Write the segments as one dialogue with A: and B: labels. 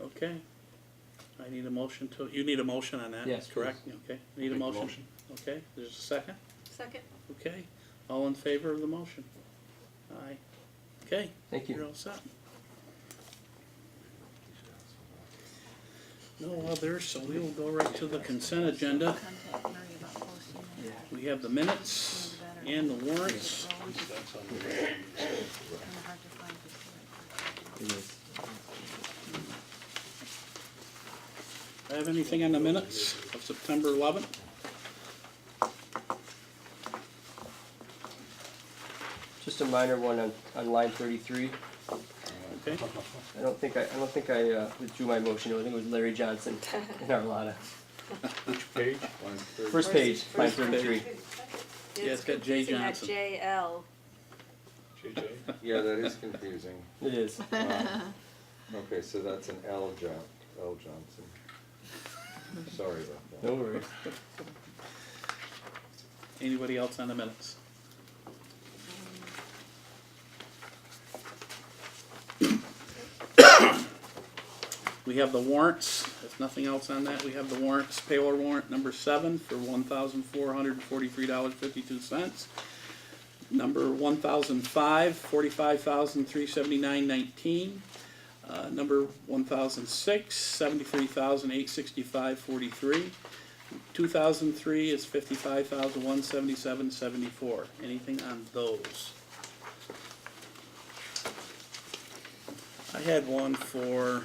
A: Okay. I need a motion to, you need a motion on that?
B: Yes,
A: Correct, okay, need a
C: Make a
A: motion?
C: motion.
A: Okay, there's a second,
D: Second?
A: okay, all in favor of the motion? Aye. Okay,
B: Thank
A: you're
B: you.
A: all set. No others, so we will go right to the consent agenda.
D: Contact Mary about posting
B: Yeah.
D: that.
A: We have the minutes and the warrants.
D: Well, it's
C: That's on the-
D: kinda hard to find this.
B: It is.
A: Do I have anything on the minutes of September eleventh?
B: Just a minor one on, on line thirty-three.
A: Okay,
B: I don't think I, I don't think I uh, withdrew my motion. I think it was Larry Johnson and Arlotta.
C: Which page? Line thirty.
B: First page,
D: First-
B: line
D: first page.
B: thirty-three.
A: Yeah, it's got Jay
D: confusing, that
A: Johnson.
D: JL.
C: JJ?
E: Yeah, that is confusing.
B: It is.
E: Wow. Okay, so that's an L John, L Johnson. Sorry about
B: No
E: that.
B: worries.
A: anybody else on the minutes? We have the warrants, if nothing else on that, we have the warrants, payroll warrant number seven for one thousand four hundred and forty-three dollars fifty-two cents. Number one thousand five, forty-five thousand three seventy-nine nineteen. Uh, number one thousand six, seventy-three thousand eight sixty-five forty-three. Two thousand three is fifty-five thousand one seventy-seven seventy-four. Anything on those? I had one for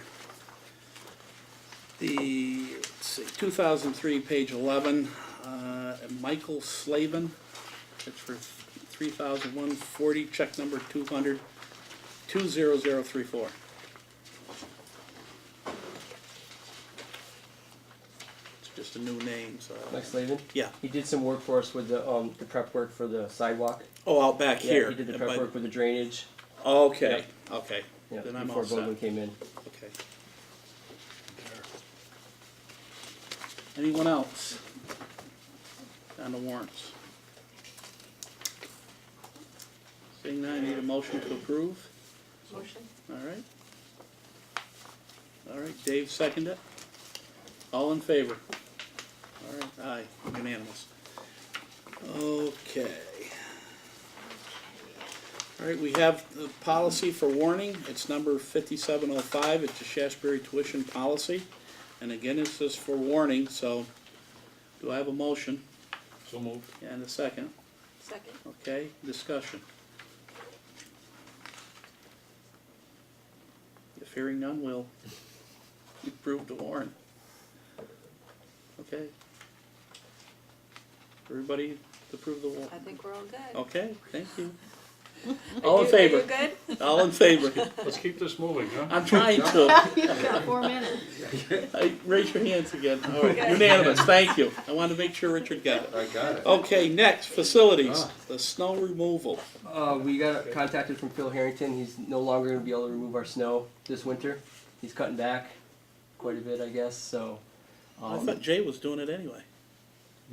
A: the, let's see, two thousand three, page eleven, uh, Michael Slavin. It's for three thousand one forty, check number two hundred, two zero zero three four. It's just a new name, so.
B: Mike Slavin.
A: Yeah,
B: He did some work for us with the um the prep work for the sidewalk.
A: oh, out back
B: Yeah,
A: here.
B: He did the
A: but-
B: prep work with the drainage.
A: Okay, okay,
B: Yeah,
A: then I'm
B: before
A: all set,
B: Bowman
A: okay.
B: came in.
A: Anyone else on the warrants? Seeing none, I need a motion to approve,
D: Motion?
A: all right? All right, Dave seconded it. All in favor? All right, aye, unanimous. Okay. All right, we have the policy for warning. It's number fifty-seven oh five. It's a Shasberry tuition policy. And again, it says for warning, so do I have a motion
C: So moved.
A: and a second?
D: Second?
A: Okay, discussion. If hearing none, we'll approve the warrant. Okay. Everybody approve the
D: I
A: warrant?
D: think we're all good.
A: Okay, thank you.
D: Are
A: Oh, All in
D: you- are
A: favor?
D: you good?
A: All in favor?
C: Let's keep this moving, huh?
A: I'm trying to.
F: Four minutes.
A: I- Raise your hands again. All right,
D: Okay.
A: unanimous, thank you. I wanted to make sure Richard got it.
E: I got it.
A: Okay, next, facilities,
B: Ah.
A: the snow removal.
B: Uh, we got contacted from Phil Harrington. He's no longer going to be able to remove our snow this winter. He's cutting back quite a bit, I guess. So
A: I
B: um,
A: thought Jay was doing it anyway.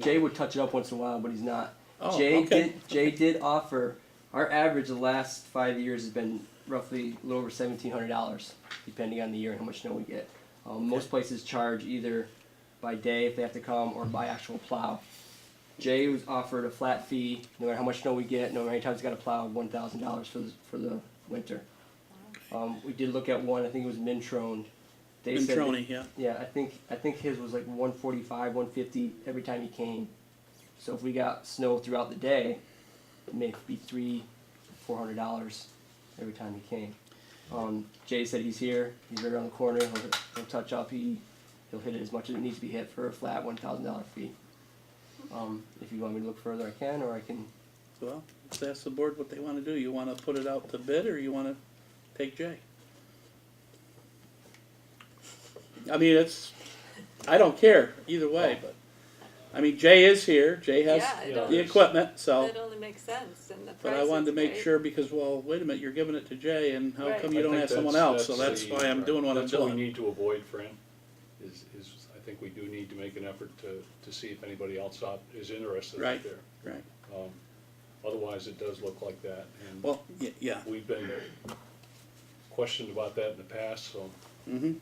B: Jay would touch it up once in a while, but he's not.
A: Oh,
B: Jay
A: okay.
B: did. Jay did offer. Our average the last five years has been roughly a little over seventeen hundred dollars, depending on the year and how much snow we get. Um, Most places charge either by day if they have to come or by actual plow. Jay was offered a flat fee, no matter how much snow we get, no matter how many times he's got to plow, one thousand dollars for the for the winter. Um, we did look at one. I think it was Mintrone. They said that-
A: Mintroni, yeah.
B: yeah, I think I think his was like 145, 150 every time he came. So if we got snow throughout the day, it may be three, four hundred dollars every time he came. Um, Jay said he's here. He's right around the corner. He'll, he'll touch up. He he'll hit it as much as it needs to be hit for a flat one thousand dollar fee. Um, if you want me to look further, I can, or I can.
A: Well, let's ask the board what they wanna do. You wanna put it out to bid, or you wanna take Jay? I mean, it's, I don't care, either
B: Oh.
A: way, but, I mean, Jay is here, Jay has
D: Yeah, it
C: the
A: the
D: only,
A: equipment, so.
D: it only makes sense and the price
A: But I wanted to
D: is
A: make
D: great.
A: sure, because, well, wait a minute, you're giving it to Jay, and how
D: Right.
A: come you
C: I
A: don't
C: think
A: have someone
C: that's-
A: else? So
C: that's
A: that's why I'm
C: the-
A: doing what I'm
C: That's what we
A: doing.
C: need to avoid, Fran, is, is I think we do need to make an effort to, to see if anybody else out is interested
A: Right.
C: out there.
A: Right,
C: Um, Otherwise, it does look like that, and
A: well, y- yeah,
C: we've been questioned about that in the past, so
A: mhm,